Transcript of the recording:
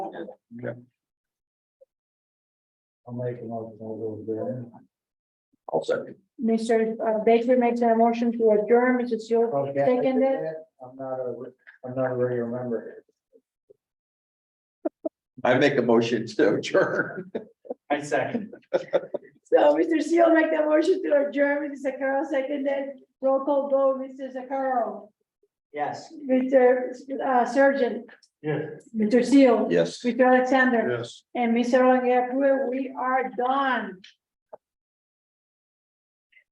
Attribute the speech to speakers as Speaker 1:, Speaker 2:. Speaker 1: I'll make a motion over there.
Speaker 2: I'll second.
Speaker 3: Mr. uh, Baker makes a motion to adjourn, Mrs. Seal, Seconded.
Speaker 1: I'm not a, I'm not a regular member.
Speaker 2: I make a motion to adjourn.
Speaker 1: I second.
Speaker 3: so Mr. Seal make the motion to adjourn, Mrs. Sakara seconded, roll call vote, Mr. Sakara.
Speaker 1: Yes.
Speaker 3: Mr. uh, Surgeon,
Speaker 1: Yes.
Speaker 3: Mr. Seal,
Speaker 2: Yes.
Speaker 3: Mr. Alexander,
Speaker 2: Yes.
Speaker 3: and Mr. Longoria, we are done.